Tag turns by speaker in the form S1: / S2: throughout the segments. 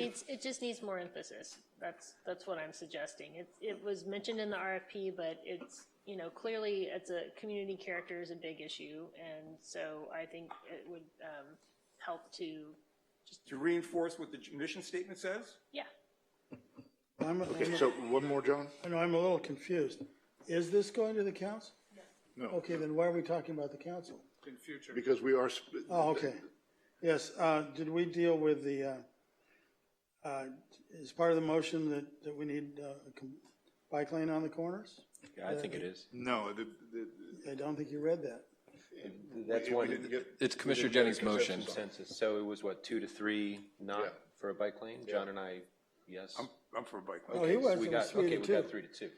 S1: needs, it just needs more emphasis. That's, that's what I'm suggesting. It, it was mentioned in the RFP, but it's, you know, clearly it's a, community character is a big issue. And so I think it would, um, help to,
S2: to reinforce what the mission statement says?
S1: yeah,
S3: I'm,
S4: Okay,
S3: I'm,
S4: so one more, John?
S3: I know, I'm a little confused. Is this going to the council?
S4: No.
S3: Okay, then why are we talking about the council?
S5: in future.
S4: Because we are, sp-
S3: Oh, okay. Yes, uh, did we deal with the, uh, uh, is part of the motion that, that we need, uh, a com- bike lane on the corners?
S6: Yeah, I think it is.
S4: no, the, the,
S3: I don't think you read that.
S6: That's
S4: we
S6: one,
S4: didn't get-
S6: it's Commissioner
S4: we didn't
S6: Jennings'
S4: get a
S6: motion.
S4: consensus
S6: So it was what, two to three,
S4: Yeah.
S6: not for a bike lane? John and I, yes.
S2: I'm for a bike lane.
S3: Oh, he
S6: Okay, so
S3: was,
S6: we
S3: it
S6: got-
S3: was three to
S6: Okay, we got
S3: two.
S6: three to two.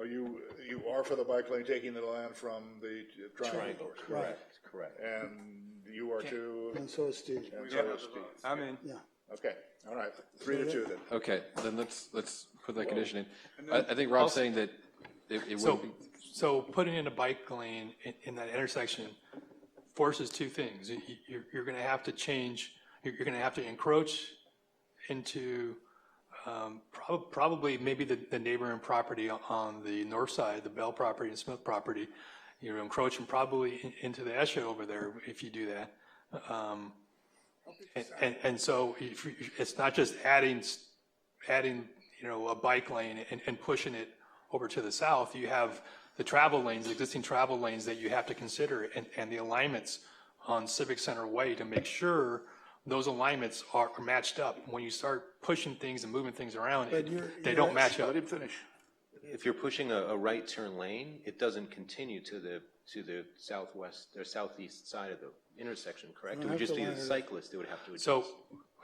S4: are you, you are for the bike lane, taking the line from the triangle course?
S6: Correct, correct.
S4: And you are too,
S3: And so is Steve.
S4: and so is Steve.
S2: I'm in.
S3: Yeah.
S4: Okay, all right, three to two then.
S6: Okay, then let's, let's put that condition in. I, I think Rob's saying that it, it
S5: So,
S6: would be,
S5: so putting in a bike lane in, in that intersection forces two things. You, you're, you're gonna have to change, you're, you're gonna have to encroach into, um, prob- probably maybe the, the neighboring property on the north side, the Bell property and Smith property. You're encroaching probably in- into the Esha over there if you do that. Um, and- and, and so if, you- it's not just adding s- adding, you know, a bike lane and, and pushing it over to the south, you have the travel lanes, existing travel lanes that you have to consider and, and the alignments on Civic Center Way to make sure those alignments are are matched up. When you start pushing things and moving things around,
S3: But you're-
S5: they
S3: you're
S5: don't match up.
S4: Let him finish.
S6: if you're pushing a, a right turn lane, it doesn't continue to the, to the southwest or southeast side of the intersection, correct? It would just be the cyclist that would have to adjust.
S5: So,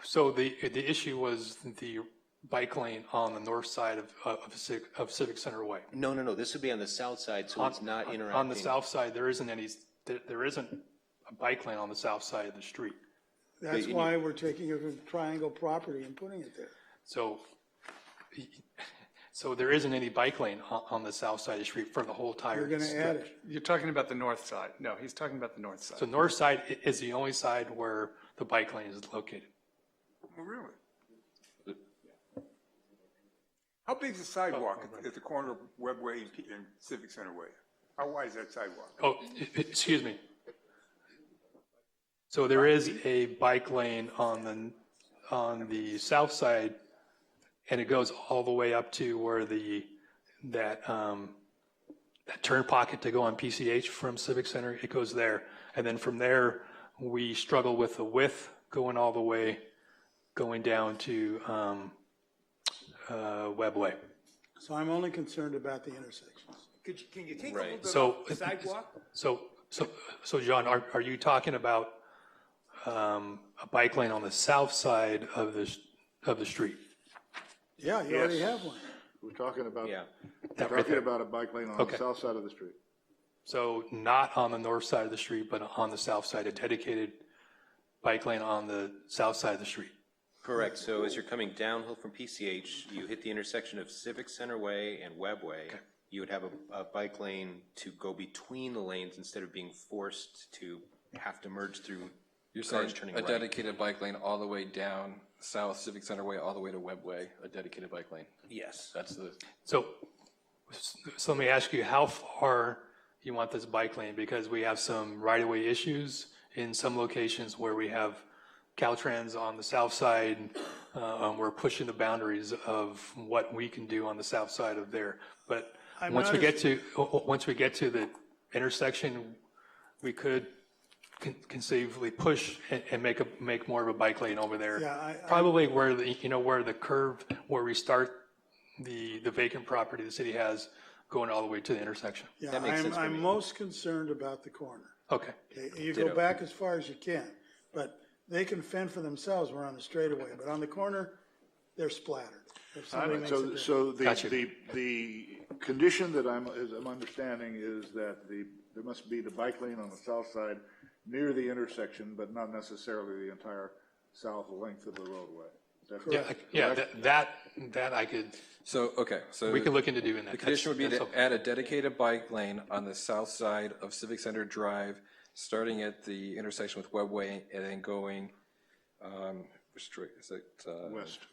S5: so the, the issue was the bike lane on the north side of, of Civic, of Civic Center Way.
S6: No, no, no, this would be on the south side, so it's not interacting.
S5: On the south side, there isn't any, there, there isn't a bike lane on the south side of the street.
S3: That's why we're taking a triangle property and putting it there.
S5: So, so there isn't any bike lane on, on the south side of the street for the whole
S3: We're
S5: tire.
S3: gonna add it.
S7: You're talking about the north side. No, he's talking about the north
S5: The
S7: side.
S5: north side i- is the only side where the bike lane is located.
S2: Well, Really? How big is the sidewalk at- at the corner of Webway and P- and Civic Center Way? How wide is that sidewalk?
S5: Oh, e- e- excuse me. So there is a bike lane on the, on the south side, and it goes all the way up to where the, that, um, that turn pocket to go on PCH from Civic Center, it goes there. And then from there, we struggle with the width going all the way, going down to, um, uh, Webway.
S3: So I'm only concerned about the intersections.
S2: Could, you- can you take a
S6: Right.
S2: little bit
S5: So-
S2: off the sidewalk?
S5: So, so, so John, are, are you talking about um, a bike lane on the south side of this, of the street?
S3: Yeah, you already have one.
S4: We're talking about,
S6: Yeah,
S4: we're
S5: right
S4: talking
S5: there.
S4: about a bike lane on the
S5: Okay.
S4: south side of the street.
S5: So not on the north side of the street, but on the south side, a dedicated bike lane on the south side of the street?
S6: correct, so as you're coming downhill from PCH, you hit the intersection of Civic Center Way and Webway. You would have a, a bike lane to go between the lanes instead of being forced to have to merge through
S8: You're
S6: cars
S8: saying
S6: turning
S8: a
S6: right.
S8: dedicated bike lane all the way down South Civic Center Way, all the way to Webb Way, a dedicated bike lane.
S6: Yes.
S8: That's the,
S5: So, so let me ask you, how far you want this bike lane? Because we have some right-of-way issues in some locations where we have Caltrans on the south side. uh, and We're pushing the boundaries of what we can do on the south side of there. But
S3: I'm
S5: once we
S3: not
S5: get to, o- o- once we get to the intersection, we could con- conceivably push and, and make a, make more of a bike lane over there.
S3: Yeah, I- I-
S5: Probably where the, you know, where the curve, where we start the, the vacant property the city has going all the way to the intersection.
S3: Yeah, I'm, I'm most concerned about the corner.
S5: Okay.
S3: Okay, You go back as far as you can, but they can fend for themselves, we're on the straightaway, but on the corner, they're splattered. If somebody makes a
S4: So,
S3: difference.
S4: so the,
S5: Gotcha.
S4: the, the condition that I'm, is I'm understanding is that the, there must be the bike lane on the south side near the intersection, but not necessarily the entire south length of the roadway. Is that correct?
S5: I- Yeah, that- that, that I could,
S8: so, okay, so.
S5: we could look into doing that.
S8: The condition would be
S5: That's-
S8: to add a dedicated bike lane on the south side of Civic Center Drive, starting at the intersection with Webb Way and then going um,
S9: restrict, is it? uh,
S6: west.